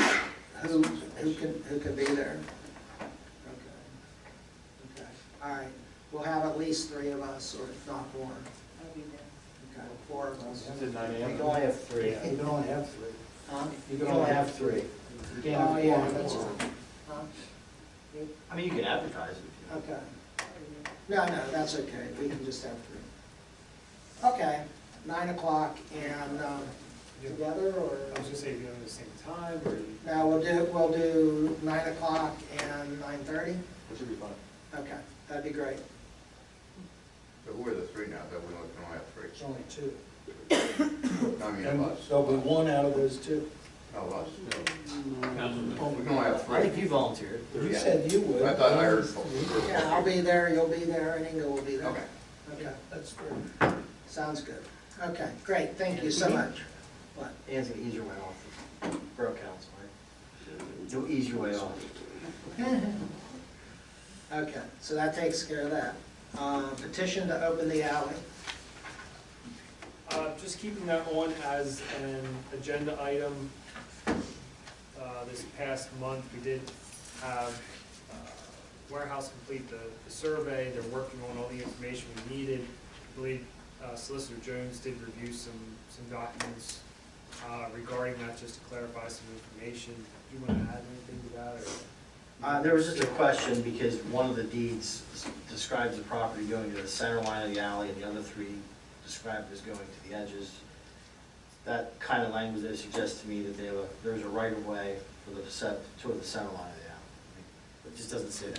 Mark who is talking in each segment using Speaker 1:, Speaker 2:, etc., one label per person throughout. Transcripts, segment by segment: Speaker 1: Who, who can, who can be there? Okay, okay, all right, we'll have at least three of us, or if not more,
Speaker 2: I'll be there.
Speaker 1: okay, four of us.
Speaker 3: It's at nine
Speaker 1: We
Speaker 3: AM.
Speaker 4: You
Speaker 1: can
Speaker 4: can only
Speaker 1: only-
Speaker 4: have three.
Speaker 1: Yeah.
Speaker 4: You can only have three.
Speaker 1: huh?
Speaker 4: You can only have three. You can't have
Speaker 1: Oh, yeah,
Speaker 4: four.
Speaker 1: that's right. Huh?
Speaker 3: I mean, you can advertise if you.
Speaker 1: Okay, no, no, that's okay, we can just have three. Okay, nine o'clock, and, um, together, or?
Speaker 5: I was gonna say, you know, at the same time, or you,
Speaker 1: No, we'll do, we'll do nine o'clock and nine thirty,
Speaker 3: Which would be fun.
Speaker 1: okay, that'd be great.
Speaker 6: But who are the three now, that we only can only have
Speaker 4: It's
Speaker 6: three?
Speaker 4: only two.
Speaker 6: I mean,
Speaker 4: And
Speaker 6: us,
Speaker 4: there'll be one out of those two.
Speaker 6: no, us.
Speaker 3: Councilman.
Speaker 6: We can only have
Speaker 3: I think
Speaker 6: three.
Speaker 3: you volunteered.
Speaker 4: You said you would.
Speaker 6: I thought I heard four.
Speaker 1: Yeah, I'll be there, you'll be there, and Inga will be there.
Speaker 6: Okay.
Speaker 1: Okay, that's good. Sounds good. Okay, great, thank you so much. What?
Speaker 4: Ann's gonna ease your way off. Borough council, right? You'll ease your way off.
Speaker 1: Okay, so that takes care of that. Uh, Petition to open the alley.
Speaker 5: uh, just keeping that on as an agenda item. Uh, this past month, we did have uh, warehouse complete the, the survey, they're working on all the information we needed. I believe uh, Solicitor Jones did review some, some documents, uh, regarding that, just to clarify some information. Do you wanna add anything to that, or?
Speaker 4: Uh, there was just a question, because one of the deeds s- describes the property going to the center line of the alley, and the other three described as going to the edges. That kind of language there suggests to me that they have a, there's a right of way for the, set- toward the center line of the alley. It just doesn't say that.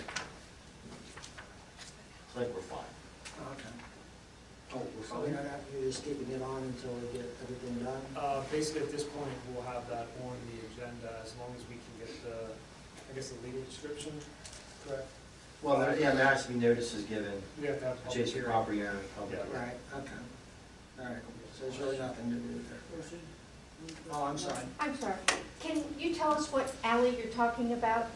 Speaker 4: It's like we're fine.
Speaker 1: Okay.
Speaker 4: Oh, we're
Speaker 1: So we don't have, you're just keeping it on until we get everything done?
Speaker 5: Uh, Basically, at this point, we'll have that on the agenda as long as we can get the, I guess, the legal description correct.
Speaker 4: Well, there, yeah, there has to be notices given,
Speaker 5: We have to have a public
Speaker 4: adjacent
Speaker 5: hearing.
Speaker 4: property owner, public.
Speaker 5: Yeah.
Speaker 1: Right, okay. All right, so there's really nothing to do there. Oh, I'm sorry.
Speaker 7: I'm sorry, can you tell us what alley you're talking about?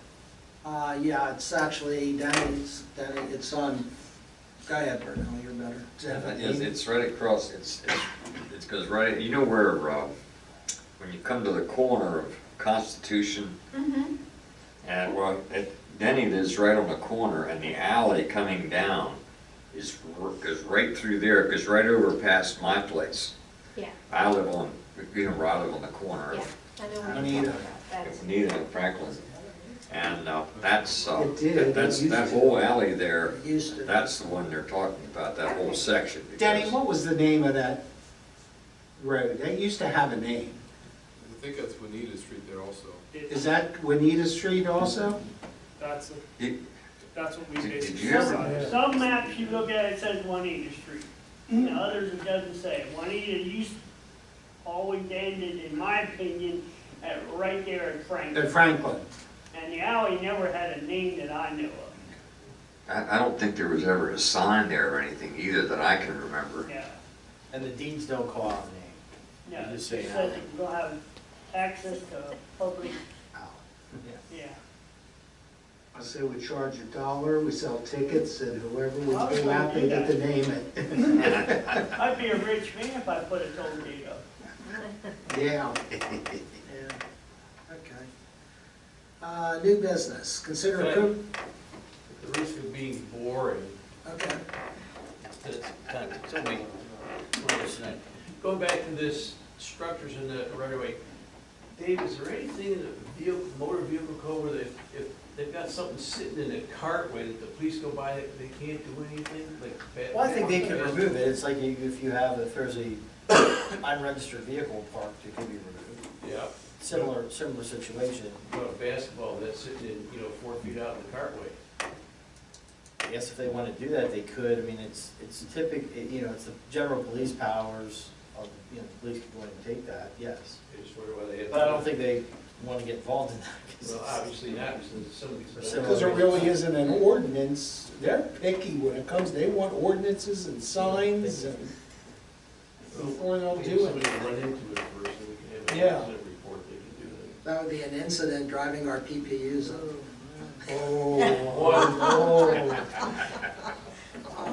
Speaker 1: Uh, yeah, it's actually Denny's, Denny, it's on, go ahead, Bert, no, you're better.
Speaker 8: Yes, it's right across, it's, it's, it goes right, you know where, uh, when you come to the corner of Constitution
Speaker 7: Mm-hmm.
Speaker 8: and, well, it- Denny lives right on the corner and the alley coming down is, r- goes right through there, goes right over past my place.
Speaker 7: Yeah,
Speaker 8: I live on, you know, where I live on the corner
Speaker 7: yeah,
Speaker 8: of
Speaker 7: I know what you're talking
Speaker 4: Anita.
Speaker 7: about, that's,
Speaker 8: Nita and Franklin. And, uh, that's, uh,
Speaker 4: It did, it
Speaker 8: that's,
Speaker 4: used
Speaker 8: that
Speaker 4: to.
Speaker 8: whole alley there,
Speaker 1: Used to.
Speaker 8: that's the one they're talking about, that whole section.
Speaker 4: Denny,
Speaker 8: because-
Speaker 4: what was the name of that road? That used to have a name.
Speaker 9: I think that's Juanita Street there also.
Speaker 5: It-
Speaker 4: Is that Juanita Street also?
Speaker 5: That's, a-
Speaker 8: It-
Speaker 5: that's what we
Speaker 8: Did- did
Speaker 5: basically.
Speaker 8: you ever-
Speaker 5: decided.
Speaker 10: Some maps you look at, it says Juanita Street,
Speaker 11: Mm-hmm.
Speaker 10: and others it doesn't say. Juanita used, always ended, in my opinion, at, right there at
Speaker 4: At
Speaker 10: Franklin.
Speaker 4: Franklin?
Speaker 10: And the alley never had a name that I knew of,
Speaker 8: I, I don't think there was ever a sign there or anything either that I can remember.
Speaker 10: yeah,
Speaker 4: And the deeds don't call out the
Speaker 10: no.
Speaker 4: You just say
Speaker 10: It
Speaker 4: an
Speaker 10: says
Speaker 4: alley.
Speaker 10: you're gonna have access to public,
Speaker 4: name.
Speaker 10: yeah.
Speaker 4: I say we charge a dollar, we sell tickets, and whoever would
Speaker 1: Oh,
Speaker 10: I was
Speaker 4: go out, they get to
Speaker 10: gonna do
Speaker 4: name it.
Speaker 10: I'd be a rich man if I put a toll gate up.
Speaker 4: Yeah.
Speaker 1: Yeah, okay. Uh, new business, consider appro,
Speaker 9: At the risk of being boring,
Speaker 1: okay,
Speaker 3: It's kind of, tell me,
Speaker 9: going back to this structures in the right of way, Dave, is there anything in the vehicle, motor vehicle code where they, if they've got something sitting in a cartway that the police go by, they they can't do anything, like? ba-
Speaker 4: Well, I think they can
Speaker 9: bad-
Speaker 4: remove it. It's like you- if you have, if there's a unregistered vehicle parked, it can be removed.
Speaker 9: Yeah,
Speaker 4: Similar, similar situation.
Speaker 9: about a basketball that's sitting in, you know, four feet out in the cartway.
Speaker 4: I guess if they want to do that, they could. I mean, it's, it's typic, it- you know, it's the general police powers of, you know, the police can go ahead and take that, yes.
Speaker 9: I just wonder why they have.
Speaker 4: But I don't think they want to get involved in that. 'cause
Speaker 9: Well,
Speaker 4: it's-
Speaker 9: obviously not, because some of these.
Speaker 4: Because there
Speaker 9: really is.
Speaker 11: isn't an ordinance, they're picky when it comes, they want ordinances and signs and, before they'll
Speaker 9: Maybe
Speaker 11: do it.
Speaker 9: Somebody run into it first, and we can have an
Speaker 11: Yeah.
Speaker 9: accident report, they can do that.
Speaker 1: that would be an incident driving our PPUs.
Speaker 11: Oh,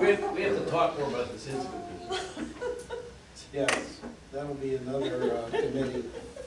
Speaker 9: We have, we have to talk more about this incident.
Speaker 11: Yes, that'll be another uh, committee.